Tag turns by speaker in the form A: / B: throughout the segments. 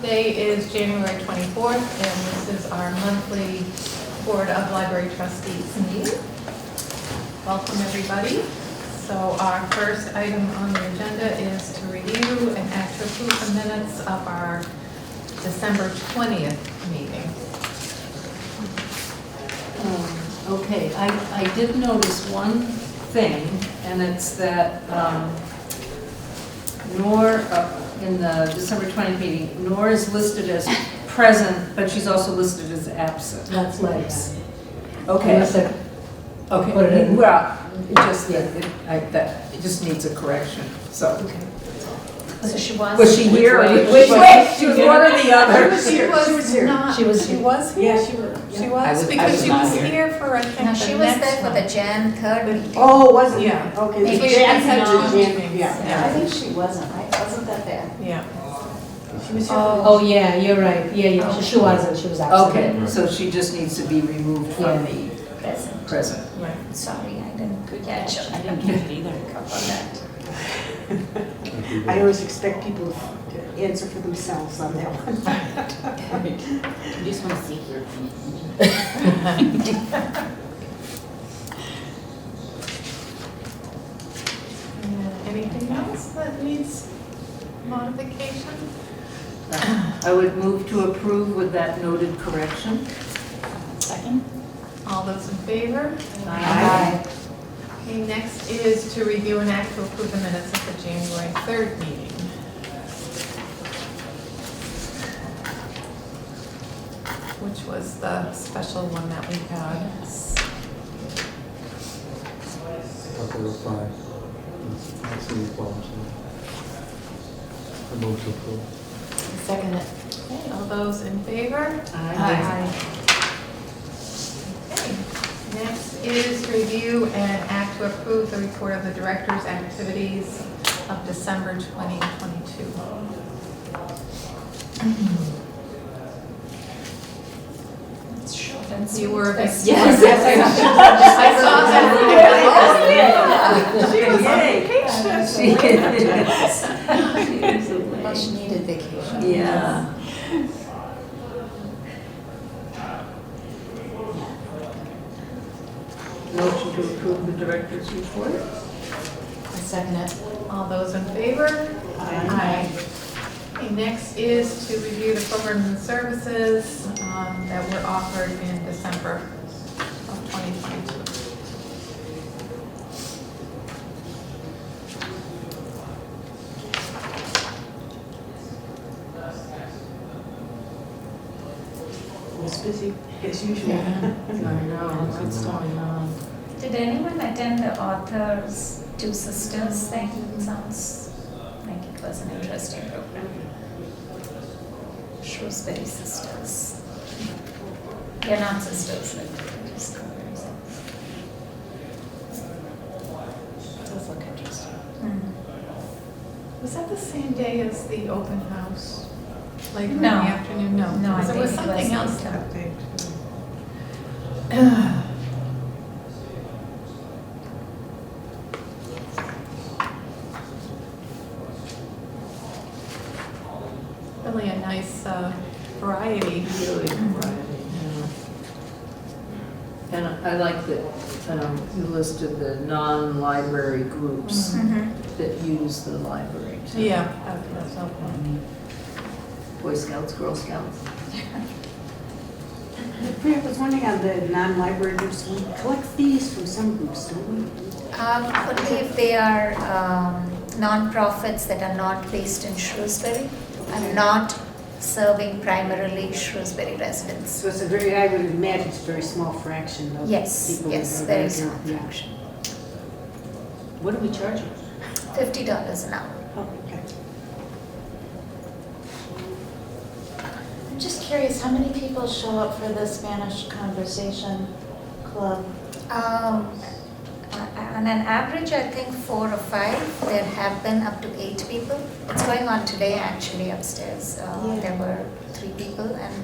A: Today is January 24th, and this is our monthly Board of Library Trustees meeting. Welcome, everybody. So our first item on the agenda is to review and act to approve the minutes of our December 20th meeting.
B: Um, Okay, I, I did notice one thing, and it's that um, Nor, uh, in the December 20th meeting, Nor is listed as present, but she's also listed as absent.
C: That's nice.
B: Okay,
C: Unless I- Put it
B: okay,
C: in.
B: well, it just, it- I- that, it just needs a correction, so.
D: So she was.
B: Was she here? or-
C: Which way?
B: Which way?
C: She
B: She was
C: was
B: one or the other.
A: She was not, she
C: She was
A: was here?
C: Yeah, she was.
A: She
E: I
A: was,
E: was- I
A: because
E: was
A: she
E: not
A: was
E: here.
A: here for, I
D: No,
A: think,
D: she
A: the
D: was there
A: next
D: for
A: one.
D: the Jan Code meeting.
C: Oh, wasn't it?
A: Yeah.
C: Okay.
A: Maybe
C: the
A: she
C: Jan
A: had
C: had
A: John.
C: the Jan- yeah.
A: Yeah.
D: I think she wasn't, right? Wasn't that there?
A: Yeah.
C: Oh, yeah, you're right. Yeah, yeah, she- she wasn't, she was absent.
B: Okay, so she just needs to be removed from the
D: Present.
B: present.
A: Right.
D: Sorry, I didn't catch
E: I
D: it.
E: didn't catch it either.
D: Up on that.
F: I always expect people to answer for themselves on that one.
E: I just want to see your opinion.
A: And Anything else that needs modification?
B: I would move to approve with that noted correction.
E: Second?
A: All those in favor?
B: Aye.
A: Okay, next is to review and act to approve the minutes of the January 3rd meeting. Which was the special one that we had.
G: Okay, that's fine. I don't see any problems there. I move to approve.
A: Second it. Okay, all those in favor? Okay, next is to review and act to approve the report of the director's activities of December 2022.
D: It's short and sweet.
A: You were.
E: Yes.
A: I saw that. She was on
B: Yay.
A: vacation.
B: She is. She is
D: Well, she
B: away.
D: needed vacation.
B: Yeah. Motion to approve the director's report?
A: I second it. All those in favor? Aye. Okay, Next is to review the programs and services um, that were offered in December of 2022.
F: It was busy as usual.
B: I know, what's going on?
D: Did anyone attend the author's Two Sisters thing? Sounds like it was an interesting program. Shrewsbury Sisters. They're not sisters, like, they're just brothers.
A: Does look interesting.
D: Mm.
A: Was that the same day as the open house? Later in the
D: No.
A: afternoon? No.
D: No, I
A: There was
D: think it was
A: something else
D: later.
A: that day. too. Really a nice uh, variety.
B: And I like that um, you listed the non-library groups
D: Mhm.
B: that use the library. too.
A: Yeah, that- that's helpful.
B: Boy Scouts, Girl Scouts.
F: Fran, I was wondering on the non-library groups, we collect fees from some groups, don't we?
D: Um, Only if they are um, nonprofits that are not based in Shrewsbury and not serving primarily Shrewsbury residents.
F: So it's a very, I would imagine it's a very small fraction of
D: Yes,
F: people.
D: yes,
F: that are
D: very
F: there.
D: small
F: Yeah.
D: fraction.
E: What do we charge you?
D: Fifty dollars an hour.
F: Oh, okay.
H: I'm just curious, how many people show up for the Spanish Conversation Club?
D: Um, uh, On an average, I think four or five, there have been up to eight people. It's going on today actually upstairs. Uh,
H: Yeah.
D: There were three people and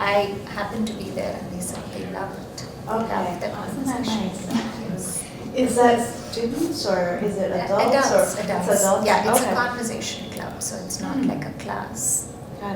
D: I happened to be there and they said they loved, loved the
H: Okay, isn't that
D: conversation.
H: nice? Is that students or is it adults? or-
D: Adults, Hmm.
H: it's
D: adults. Yeah, it's a
H: Okay.
D: conversation club, so it's not like a class.